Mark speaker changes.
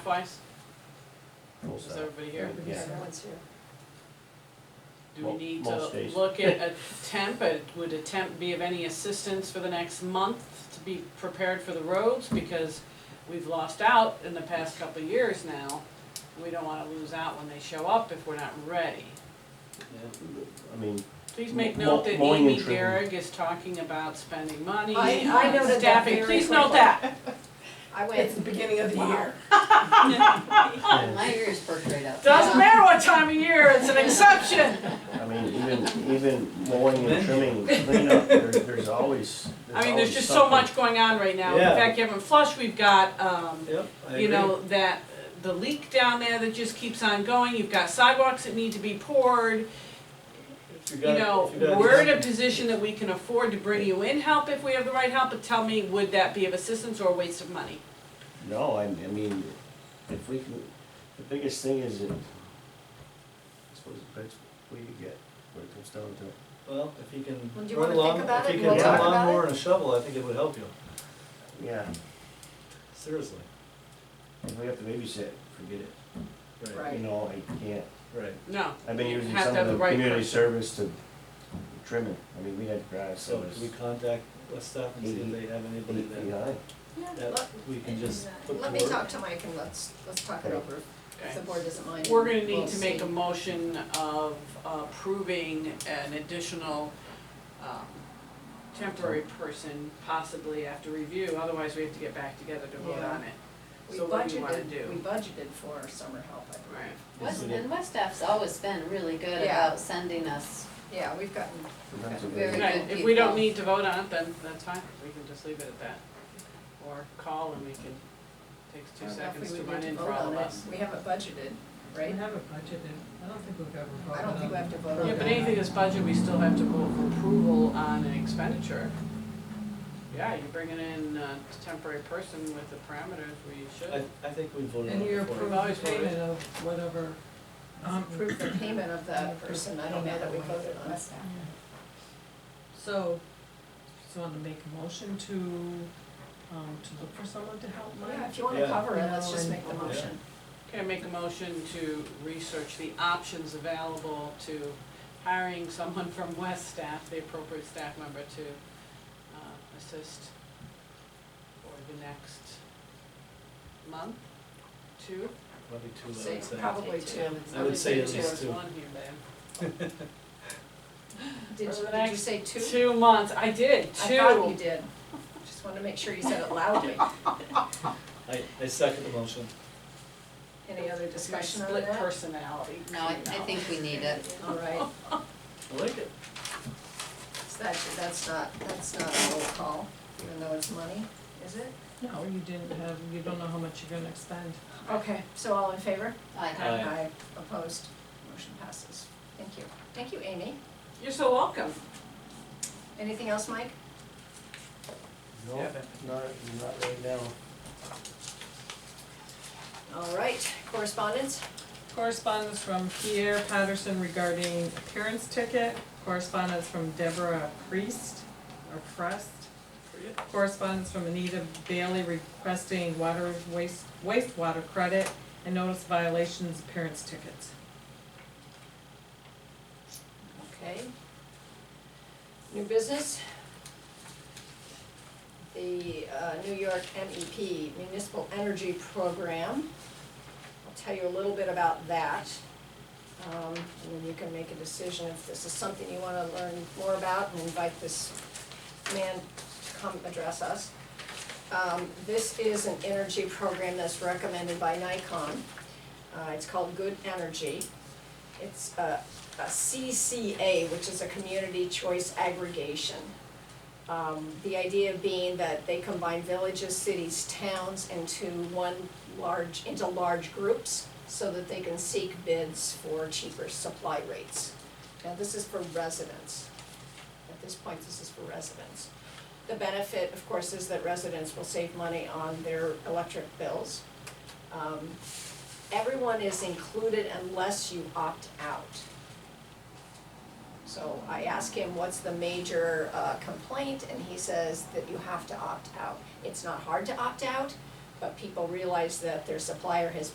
Speaker 1: Twice,
Speaker 2: Full
Speaker 1: is
Speaker 2: set.
Speaker 1: everybody here?
Speaker 2: Yeah.
Speaker 3: Everyone's here.
Speaker 1: Do we
Speaker 2: Mo-
Speaker 1: need
Speaker 2: most
Speaker 1: to
Speaker 2: days.
Speaker 1: look at a temp, Uh, would a temp be of any assistance for the next month to be prepared for the roads? Because we've lost out in the past couple of years now, we don't wanna lose out when they show up if we're not ready.
Speaker 2: I mean,
Speaker 1: Please make
Speaker 2: Mo-
Speaker 1: note that
Speaker 2: mowing and
Speaker 1: Amy
Speaker 2: trimming.
Speaker 1: Garrig is talking about spending money
Speaker 3: I- I noted
Speaker 1: on
Speaker 3: that
Speaker 1: staffing,
Speaker 3: very
Speaker 1: please note
Speaker 3: quickly.
Speaker 1: that.
Speaker 3: I
Speaker 4: It's the
Speaker 3: went,
Speaker 4: beginning of the
Speaker 3: Wow.
Speaker 4: year.
Speaker 1: Oh,
Speaker 5: My ears perk right up.
Speaker 1: Doesn't matter what time of year, it's an exception.
Speaker 2: I mean, even, even mowing and trimming, cleanup, there, there's always, there's
Speaker 1: I mean,
Speaker 2: always
Speaker 1: there's just so
Speaker 2: something.
Speaker 1: much going on right now. In
Speaker 2: Yeah.
Speaker 1: fact, Kevin Flush, we've got, um,
Speaker 2: Yep, I
Speaker 1: you
Speaker 2: agree.
Speaker 1: know, that, uh, the leak down there that just keeps on going. You've got sidewalks that need to be poured.
Speaker 6: If you
Speaker 1: You
Speaker 6: got-
Speaker 1: know,
Speaker 6: if you got-
Speaker 1: we're in a position that we can afford to bring you in help if we have the right help, but tell me, would that be of assistance or a waste of money?
Speaker 2: No, I, I mean, if we can, the biggest thing is that, I suppose the best way to get, when it comes down to it.
Speaker 6: Well, if he can
Speaker 3: Well, do you wanna
Speaker 6: run
Speaker 3: think
Speaker 6: along,
Speaker 3: about
Speaker 6: if
Speaker 3: it
Speaker 6: he
Speaker 3: and
Speaker 6: can
Speaker 2: we'll
Speaker 6: run
Speaker 2: talk
Speaker 6: a
Speaker 3: about
Speaker 6: lawnmower
Speaker 3: it?
Speaker 6: and a shovel, I think it would help you,
Speaker 2: Yeah,
Speaker 6: seriously.
Speaker 2: if we have to babysit, forget it, you
Speaker 3: right,
Speaker 2: know, I can't,
Speaker 6: Right,
Speaker 1: No.
Speaker 2: I've been
Speaker 1: You
Speaker 2: using
Speaker 1: have to
Speaker 2: some
Speaker 1: have
Speaker 2: of
Speaker 1: the
Speaker 2: the
Speaker 1: right
Speaker 2: community
Speaker 1: person.
Speaker 2: service to trim it, I mean, we had grass, so
Speaker 6: so
Speaker 2: it's
Speaker 6: can we contact West Stop and see if they have anybody
Speaker 2: eight feet
Speaker 6: that,
Speaker 2: high.
Speaker 3: yeah,
Speaker 6: that we can just put to
Speaker 3: let, let me
Speaker 6: work?
Speaker 3: talk to Mike and let's, let's talk it over, if
Speaker 1: Okay.
Speaker 3: the board doesn't mind.
Speaker 1: We're gonna need
Speaker 3: We'll
Speaker 1: to make
Speaker 3: see.
Speaker 1: a motion of approving an additional, um, temporary person possibly after review, otherwise we have to get back together to vote on it.
Speaker 3: We
Speaker 1: So what do you wanna
Speaker 3: budgeted-
Speaker 1: do?
Speaker 3: We budgeted for summer help, I believe.
Speaker 1: Right,
Speaker 5: West, and West F's always been really good
Speaker 3: Yeah.
Speaker 5: about sending us,
Speaker 3: Yeah, we've gotten,
Speaker 2: That's a
Speaker 3: Okay.
Speaker 2: good-
Speaker 5: Very
Speaker 1: Right,
Speaker 5: good
Speaker 1: if we don't
Speaker 5: people.
Speaker 1: need to vote on it, then that's fine, we can just leave it at that. Or call and we can, takes
Speaker 3: I
Speaker 1: two
Speaker 3: don't know
Speaker 1: seconds
Speaker 3: if uh, we
Speaker 1: to
Speaker 3: would
Speaker 1: run
Speaker 3: need to
Speaker 1: in
Speaker 3: vote
Speaker 1: for all
Speaker 3: on
Speaker 1: of
Speaker 3: it,
Speaker 1: us.
Speaker 3: we haven't budgeted,
Speaker 7: We
Speaker 3: right?
Speaker 7: haven't budgeted, I don't think we've ever voted on.
Speaker 3: I don't think we have to vote on it.
Speaker 1: Yeah, but anything that's budget, we still have to vote for approval on an expenditure. Yeah, you're bringing in a temporary person with the parameters we should.
Speaker 6: I, I think we voted on
Speaker 7: And
Speaker 6: it
Speaker 7: you
Speaker 6: before.
Speaker 7: approve
Speaker 1: Always
Speaker 7: the
Speaker 1: voted.
Speaker 7: payment of whatever, um,
Speaker 3: Approve the payment of that person, I don't know that we voted on it.
Speaker 7: so, just wanna make a motion to, um, to look for someone to help Mike.
Speaker 3: Yeah, if you wanna
Speaker 6: Yeah.
Speaker 3: cover it, let's just
Speaker 7: No,
Speaker 3: make the
Speaker 7: and-
Speaker 3: motion.
Speaker 1: Okay, I make a motion to research the options available to hiring someone from West staff, the appropriate staff member to uh, assist for the next month, two.
Speaker 6: Probably two, I would
Speaker 3: Say,
Speaker 6: say.
Speaker 3: probably two.
Speaker 6: I would say at
Speaker 1: Two.
Speaker 6: least
Speaker 1: There's
Speaker 6: two.
Speaker 1: one here, babe.
Speaker 3: Did,
Speaker 1: For the
Speaker 3: did you
Speaker 1: next
Speaker 3: say two?
Speaker 1: Two months, I did, two.
Speaker 3: I thought you did, just wanted to make sure you said it loudly.
Speaker 6: I, I second the motion.
Speaker 3: Any other discussion on
Speaker 1: Split
Speaker 3: that?
Speaker 1: personality.
Speaker 5: no, I, I think we need it.
Speaker 3: All right,
Speaker 6: I like it.
Speaker 3: so that, that's not, that's not a roll call, even though it's money, is it?
Speaker 7: No, you didn't have, you don't know how much you're gonna expend.
Speaker 3: Okay, so all in favor?
Speaker 5: I,
Speaker 3: Uh,
Speaker 6: Aye.
Speaker 3: opposed, motion passes. Thank you. Thank you, Amy.
Speaker 1: You're so welcome.
Speaker 3: Anything else, Mike?
Speaker 2: No,
Speaker 1: Yeah.
Speaker 2: not, not right now.
Speaker 3: All right, correspondence?
Speaker 7: Correspondence from Pierre Patterson regarding appearance ticket, correspondence from Deborah Priest, or Prest. Correspondence from Anita Bailey requesting water waste, wastewater credit and notice violations appearance tickets.
Speaker 3: Okay. New business? The uh, New York MEP Municipal Energy Program. I'll tell you a little bit about that. Um, And then you can make a decision if this is something you want to learn more about and invite this man to come address us. Um, This is an energy program that's recommended by Nikon. Uh, It's called Good Energy. It's uh, a a CCA, which is a community choice aggregation. Um, the idea being that they combine villages, cities, towns into one large, into large groups so that they can seek bids for cheaper supply rates. Now, this is for residents. At this point, this is for residents. The benefit, of course, is that residents will save money on their electric bills. Um, everyone is included unless you opt out. So I asked him, what's the major uh, complaint, and he says that you have to opt out. It's not hard to opt out, but people realize that their supplier has